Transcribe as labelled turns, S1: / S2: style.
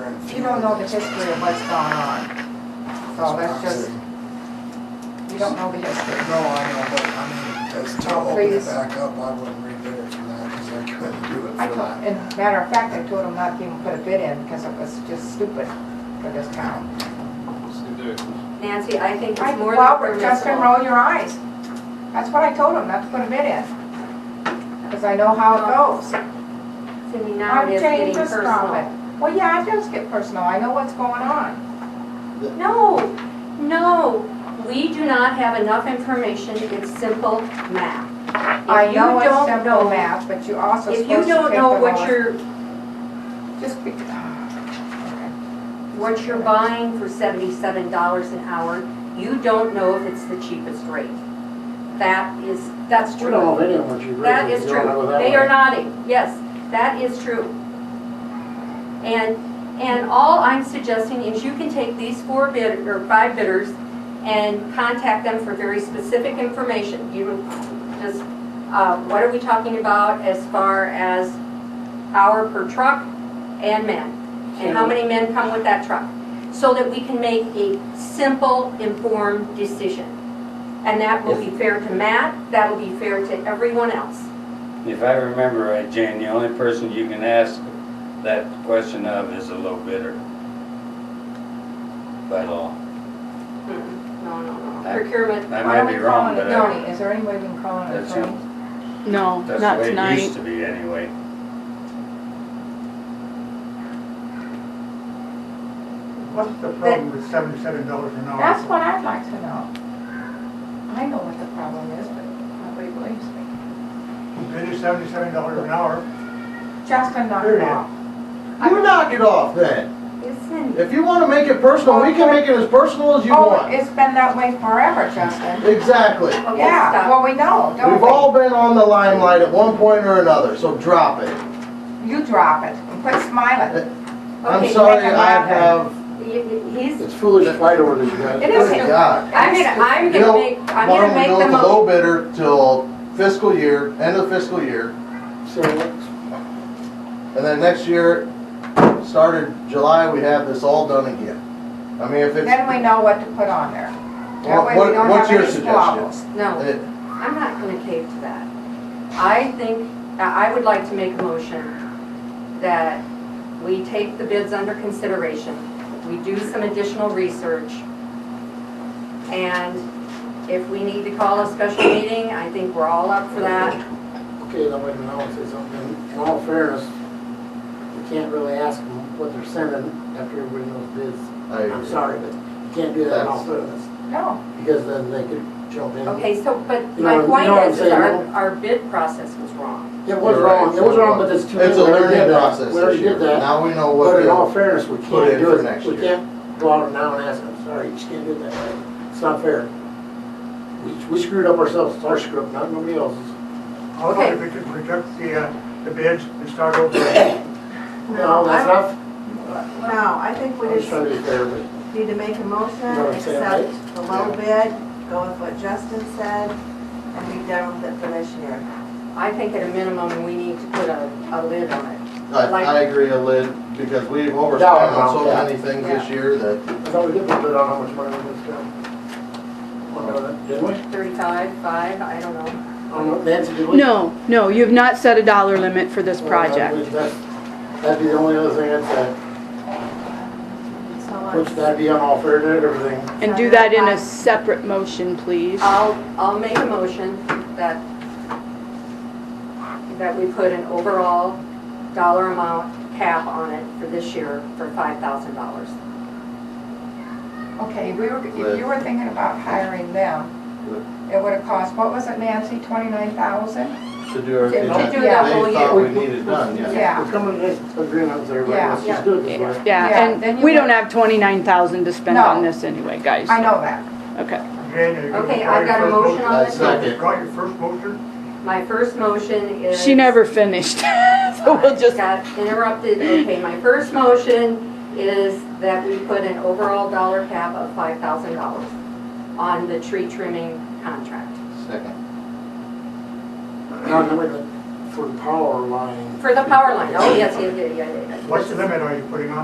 S1: don't know the history of what's gone on. So that's just, you don't know the history.
S2: No, I know, but I mean, as Tom opened it
S1: Please.
S2: back up, I wouldn't rebid it for that, because I couldn't do it
S1: I
S2: for
S1: told,
S2: that.
S1: and matter of fact, I told him not to even put a bid in because it was just stupid for this town.
S3: Nancy, I think
S1: I,
S3: it's more
S1: well,
S3: than
S1: but Justin,
S3: permissible.
S1: roll your eyes. That's what I told him, not to put a bid in. Because I know how it goes.
S3: To me now,
S1: I'm
S3: it is getting
S1: dangerous from
S3: personal.
S1: it. Well, yeah, it does get personal. I know what's going on.
S3: No, no, we do not have enough information, it's simple math. If
S1: I
S3: you
S1: know
S3: don't
S1: it's simple
S3: know-
S1: math, but you also supposed
S3: If
S1: to
S3: you
S1: take the
S3: don't know what
S1: lowest-
S3: you're,
S1: Just be, okay.
S3: what you're buying for seventy-seven dollars an hour, you don't know if it's the cheapest rate. That is, that's
S4: We don't know
S3: true.
S4: if anyone should really.
S3: That is
S4: we don't know
S3: true.
S4: that
S3: They
S4: one.
S3: are nodding, yes, that is true. And, and all I'm suggesting is you can take these four bid, or five bidders and contact them for very specific information. You just, uh, what are we talking about as far as hour per truck and men? And how many men come with that truck? So that we can make a simple, informed decision. And that will be fair to Matt, that will be fair to everyone else.
S5: If I remember right, Jane, the only person you can ask that question of is a low bidder. By law.
S3: Mm, No, no, no.
S5: That-
S3: Procurement,
S1: Why
S5: I might
S1: don't
S5: be
S1: we call
S5: wrong,
S1: an
S5: but I-
S1: attorney? Is there any way we can call an
S5: That's
S1: attorney?
S6: No,
S5: that's
S6: not
S5: the way it
S6: tonight.
S5: used to be anyway.
S7: What's the problem with seventy-seven dollars an hour?
S1: That's what I'd like to know. I know what the problem is, but nobody believes me.
S7: It is seventy-seven dollars an hour.
S1: Justin knocked it
S7: Period.
S1: off.
S8: You knock it off then.
S3: isn't
S8: If you wanna make it personal, we can make it as personal as you
S1: Oh,
S8: want.
S1: it's been that way forever, Justin.
S8: Exactly.
S3: Okay,
S1: Yeah,
S3: stop.
S1: well, we know, don't
S8: We've all been on the limelight at one point or another, so drop it.
S1: we? You drop it and quit smiling.
S8: I'm
S3: Okay,
S8: sorry,
S1: make it
S8: I
S1: happen.
S8: have,
S3: He- he- He's,
S4: It's foolish to fight over this, you guys.
S1: It is
S8: good
S1: stupid.
S8: God.
S3: I'm gonna, I'm
S8: You know,
S3: gonna make, I'm
S8: Why
S3: gonna
S8: don't we
S3: make
S8: go
S3: the
S8: with the
S3: mo,
S8: low bidder till fiscal year, end of fiscal year,
S4: So,
S8: and then next year, started July, we have this all done again. I mean, if it's,
S1: Then we know what to put on there. That way
S8: what,
S1: we don't have
S8: what- what's your
S1: any
S8: suggestion?
S1: squabbles.
S3: no,
S8: It-
S3: I'm not gonna cave to that. I think, I I would like to make a motion that we take the bids under consideration, we do some additional research, and if we need to call a special meeting, I think we're all up for that.
S4: okay, now wait a minute, I want to say something. In all fairness, you can't really ask them what they're sending after everybody knows bids.
S8: I
S4: I'm
S8: agree.
S4: sorry, but you can't do that in all fairness,
S1: No,
S4: because then they could jump in.
S3: Okay, so, but
S4: You
S3: my
S4: know- you
S3: point
S4: know what I'm
S3: is, is our,
S4: saying?
S3: our bid process was wrong.
S4: It was
S8: You're right.
S4: wrong, it was wrong, but it's too late.
S8: It's a
S4: We already did
S8: learning
S4: that.
S8: process
S4: We already
S8: this year.
S4: did that,
S8: Now we know what.
S4: but in
S8: to-
S4: all fairness, we
S8: put in
S4: can't do
S8: for next
S4: it. We
S8: year.
S4: can't go out now and ask them, sorry, you just can't do that. It's not fair. We we screwed up ourselves, it's our screw up, not nobody else's.
S7: How about if we could reject the, uh, the bids and start over?
S4: No, that's not,
S9: No, I think we
S4: I'm just
S9: just
S4: trying to be fair, but
S9: need to make a motion,
S4: You know what I'm saying, right?
S9: accept the low bid, go with what Justin said, and be done with it for this year.
S3: I think at a minimum, we need to put a, a lid on it.
S8: I, I agree, a lid, because we've overspent on so many things this year that,
S4: I thought we did put it on how much money we just got. Didn't we?
S3: Thirty-five, five, I don't know.
S4: I don't know, Nancy, did we?
S6: No, no, you have not set a dollar limit for
S5: Oh,
S6: this project.
S4: That'd be the only other thing I'd
S9: So
S4: say,
S9: let's-
S4: which that'd be on all fair and everything.
S6: And do that in a separate motion, please.
S5: Oh.
S3: I'll, I'll make a motion that, that we put an overall dollar amount cap on it for this year for five thousand dollars.
S1: okay, we were, if you were thinking about hiring them, it would have cost, what was it Nancy, twenty-nine thousand?
S8: to do everything
S3: To- to
S8: that
S3: do
S8: they
S3: that whole
S8: thought
S4: year.
S8: we needed done, yeah.
S1: Yeah.
S4: We're coming to this agreement, so everybody,
S1: Yeah.
S4: let's just do it this way.
S1: Yeah,
S6: Yeah,
S1: then
S6: and
S1: you
S6: we don't
S1: get-
S6: have twenty-nine thousand to spend
S1: No.
S6: on this anyway, guys.
S1: I know that.
S6: Okay.
S3: Okay, I've got a motion on
S8: That's
S3: this.
S8: not-
S7: You got your first motion?
S3: My first motion is.
S6: She never finished, so we'll just,
S3: Got interrupted. Okay, my first motion is that we put an overall dollar cap of five thousand dollars on the tree trimming contract
S8: Second.
S4: Now, now, wait a minute, for the power line.
S3: for the power line. Oh, yes, yes, yes, yes, yes.
S7: What limit are you putting on